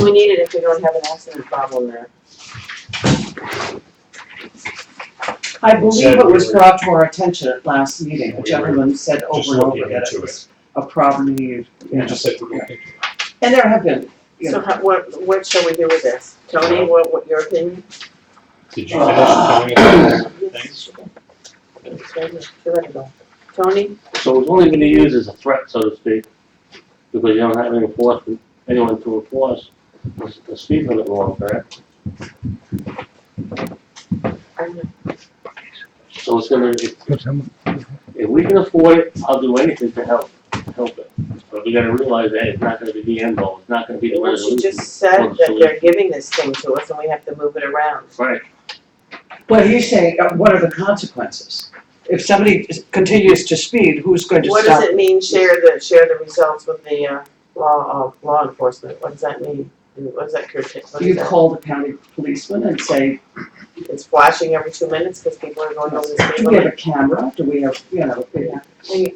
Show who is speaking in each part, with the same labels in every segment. Speaker 1: we need it if we don't have an accident problem there?
Speaker 2: I believe it was brought to our attention at last meeting, the gentleman said
Speaker 3: Just
Speaker 2: over and over
Speaker 3: looking
Speaker 2: that
Speaker 3: into
Speaker 2: it was a problem you,
Speaker 3: Yeah, just like, we're looking-
Speaker 2: and there have been, you
Speaker 1: So
Speaker 2: know,
Speaker 1: how, what, what shall we do with this? Tony, what, what, your opinion?
Speaker 3: did you finish coming up with things?
Speaker 1: It's right here. She let it go. Tony,
Speaker 4: So it's only gonna use as a threat, so to speak, because you don't have any enforcement, anyone to enforce the- the speed limit law, correct?
Speaker 1: I'm not-
Speaker 4: So it's gonna, if, if we can afford it, I'll do anything to help, help it. But we gotta realize that it's not gonna be the end goal, it's not gonna be the
Speaker 1: well, she
Speaker 4: resolution.
Speaker 1: just said that they're giving this thing to us and we have to move it around.
Speaker 4: Right,
Speaker 2: but he's saying, uh, what are the consequences? If somebody is- continues to speed, who's going to
Speaker 1: What does
Speaker 2: stop?
Speaker 1: it mean, share the, share the results with the, uh, law, uh, law enforcement? What does that mean? And What does that curtail, what is
Speaker 2: You
Speaker 1: that?
Speaker 2: call the county policeman and say,
Speaker 1: It's flashing every two minutes because people are going over the
Speaker 2: do
Speaker 1: speed
Speaker 2: we have
Speaker 1: limit?
Speaker 2: a camera, do we have, you know, yeah.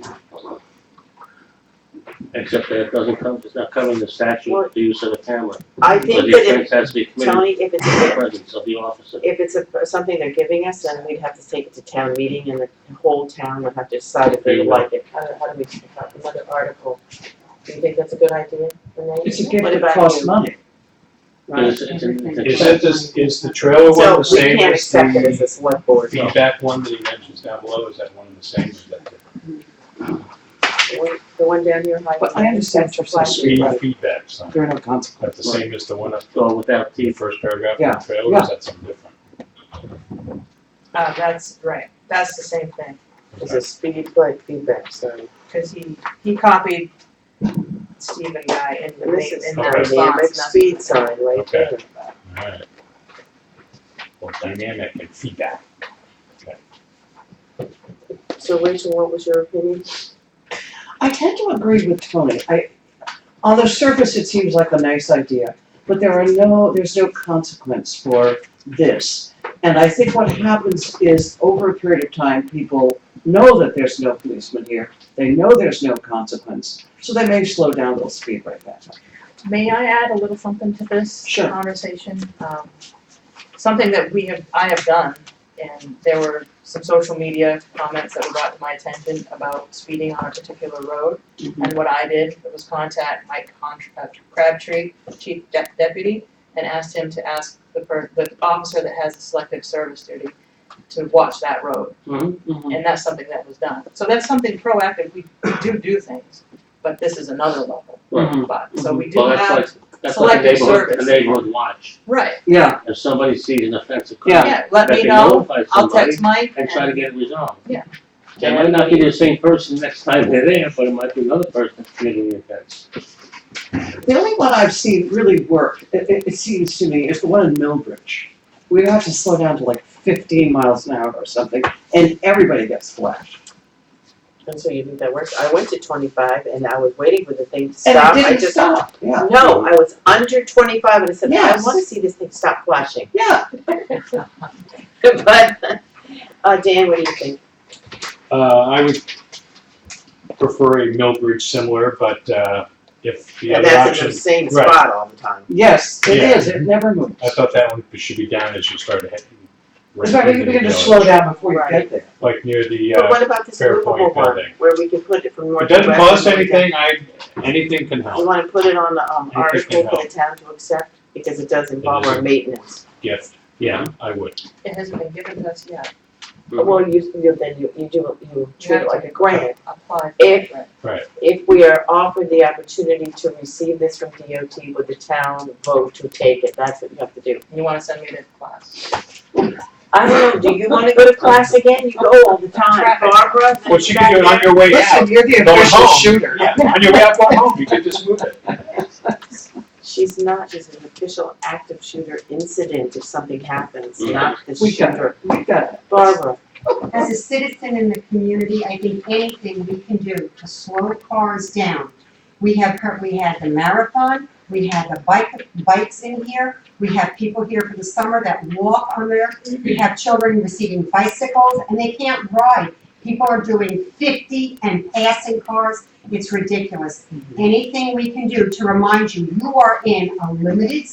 Speaker 4: except that it doesn't come, it's not covering the statute, the use of the camera.
Speaker 1: I
Speaker 4: But
Speaker 1: think
Speaker 4: the
Speaker 1: that
Speaker 4: offense has to be
Speaker 1: if,
Speaker 4: committed
Speaker 1: Tony, if it's,
Speaker 4: in the
Speaker 1: a-
Speaker 4: presence of the officer.
Speaker 1: if it's a, something they're giving us, then we'd have to take it to town meeting and the whole town would have to decide if they
Speaker 4: There you
Speaker 1: like it. How do, how do we, how- another article? Do you think that's a good idea, Renee?
Speaker 2: It's a gift
Speaker 1: What
Speaker 2: that
Speaker 1: about
Speaker 2: costs
Speaker 1: you?
Speaker 2: money, right?
Speaker 4: It's- it's an- it's an
Speaker 3: Is it this, is the trailer one
Speaker 1: So
Speaker 3: the
Speaker 1: we
Speaker 3: same
Speaker 1: can't
Speaker 3: as
Speaker 1: accept it as
Speaker 3: the
Speaker 1: a select board.
Speaker 3: feedback one that he mentions down below, is that one and the same? Is that different?
Speaker 1: The one- the one down here, high.
Speaker 2: But I understand your
Speaker 3: The
Speaker 2: Right,
Speaker 3: speed
Speaker 2: right.
Speaker 3: feedback sign,
Speaker 2: There are no consequences.
Speaker 3: that's the same as the one up
Speaker 4: Well, without
Speaker 3: in the
Speaker 4: teeth,
Speaker 3: first paragraph
Speaker 2: Yeah,
Speaker 3: of the trailer, or is that something different?
Speaker 5: Uh, that's right, that's the same thing,
Speaker 1: It's a speed like feedback, so.
Speaker 5: cause he, he copied Stephen Guy in the,
Speaker 1: And this
Speaker 5: ma-
Speaker 1: is
Speaker 5: in
Speaker 1: a
Speaker 5: the
Speaker 3: Okay.
Speaker 5: response.
Speaker 1: dynamic speed sign right
Speaker 3: Okay.
Speaker 1: there.
Speaker 3: Alright. Well, dynamic and feedback.
Speaker 1: So Rachel, what was your opinion?
Speaker 2: I tend to agree with Tony. I, on the surface, it seems like a nice idea, but there are no, there's no consequence for this. And I think what happens is over a period of time, people know that there's no policeman here. They know there's no consequence, so they may slow down, they'll speed right back up.
Speaker 5: May I add a little something to this
Speaker 2: Sure.
Speaker 5: conversation? Um, Something that we have, I have done, and there were some social media comments that were brought to my attention about speeding on a particular road. And what I did was contact Mike Con- uh, Crabtree, Chief De- Deputy, and asked him to ask the per, the officer that has the selective service duty to watch that road. And that's something that was done. So that's something proactive, we do do things, but this is another level.
Speaker 4: Mhm.
Speaker 5: But, so we do
Speaker 4: well,
Speaker 5: have
Speaker 4: that's like, that's like a
Speaker 5: selective
Speaker 4: neighborhood, a
Speaker 5: service.
Speaker 4: neighborhood watch.
Speaker 5: Right,
Speaker 2: Yeah,
Speaker 4: If somebody sees an offensive
Speaker 2: Yeah.
Speaker 4: comment,
Speaker 5: yeah, let
Speaker 4: that
Speaker 5: me
Speaker 4: they
Speaker 5: know,
Speaker 4: notify
Speaker 5: I'll
Speaker 4: somebody
Speaker 5: text Mike
Speaker 4: and try to
Speaker 5: and,
Speaker 4: get it resolved.
Speaker 5: Yeah.
Speaker 4: It might not be the same person next time they're there, but it might be another person that's committing the offense.
Speaker 2: the only one I've seen really work, it, it, it seems to me, is the one in Millbridge. We have to slow down to like fifteen miles an hour or something, and everybody gets flashed.
Speaker 1: And so you think that works? I went to twenty-five and I was waiting for the thing to
Speaker 2: And
Speaker 1: stop.
Speaker 2: it
Speaker 1: I
Speaker 2: didn't
Speaker 1: just-
Speaker 2: stop. Yeah,
Speaker 1: No, I was under twenty-five and I said, I
Speaker 2: Yes.
Speaker 1: wanna see this thing stop flashing.
Speaker 2: yeah.
Speaker 1: But, uh, Dan, what do you think?
Speaker 3: Uh, I would prefer a Millbridge similar, but, uh, if the
Speaker 1: And
Speaker 3: other
Speaker 1: that's in
Speaker 3: option,
Speaker 1: the same
Speaker 3: right.
Speaker 1: spot all the time.
Speaker 2: Yes, it
Speaker 3: Yeah.
Speaker 2: is. It never moves.
Speaker 3: I thought that one should be down as you start heading.
Speaker 2: In fact, you begin to slow down before you get there.
Speaker 3: Like near the,
Speaker 1: But
Speaker 3: uh,
Speaker 1: what about this
Speaker 3: Fair
Speaker 1: movable
Speaker 3: point,
Speaker 1: one,
Speaker 3: building.
Speaker 1: where we can put it from north
Speaker 3: it
Speaker 1: to west?
Speaker 3: doesn't cost
Speaker 1: and we can-
Speaker 3: anything, I, anything can
Speaker 1: You
Speaker 3: help,
Speaker 1: wanna put it on the, um,
Speaker 3: Interesting
Speaker 1: article for
Speaker 3: help.
Speaker 1: the town to accept, because it does involve
Speaker 3: is.
Speaker 1: our maintenance.
Speaker 3: gift, yeah, I would.
Speaker 5: it hasn't been given to us yet,
Speaker 1: Well, you, you, then you, you do, you treat
Speaker 5: have
Speaker 1: it
Speaker 5: to-
Speaker 1: like a grant.
Speaker 5: apply for
Speaker 1: If-
Speaker 5: it, right?
Speaker 1: If we are offered the opportunity to receive this from DOT, would the town vote to take it? That's what you have to do.
Speaker 5: You wanna send me to class?
Speaker 1: I don't know, do you wanna go to class again? You go all the time.
Speaker 5: Traffic.
Speaker 1: Barbara?
Speaker 3: Well, you can do it on your way out,
Speaker 2: Listen, you're the
Speaker 3: Going
Speaker 2: official
Speaker 3: home.
Speaker 2: shooter.
Speaker 3: yeah, on your way out going home, you could just move it.
Speaker 1: She's not, she's an official active shooter incident if something happens,
Speaker 4: Mhm.
Speaker 1: not the
Speaker 2: We got
Speaker 1: shooter.
Speaker 2: We got it.
Speaker 1: Barbara,
Speaker 6: As a citizen in the community, I think anything we can do to slow cars down. We have heard, we had the marathon, we had the bike, bikes in here, we have people here for the summer that walk on there. We have children receiving bicycles and they can't ride. People are doing fifty and passing cars, it's ridiculous. Anything we can do to remind you, you are in a limited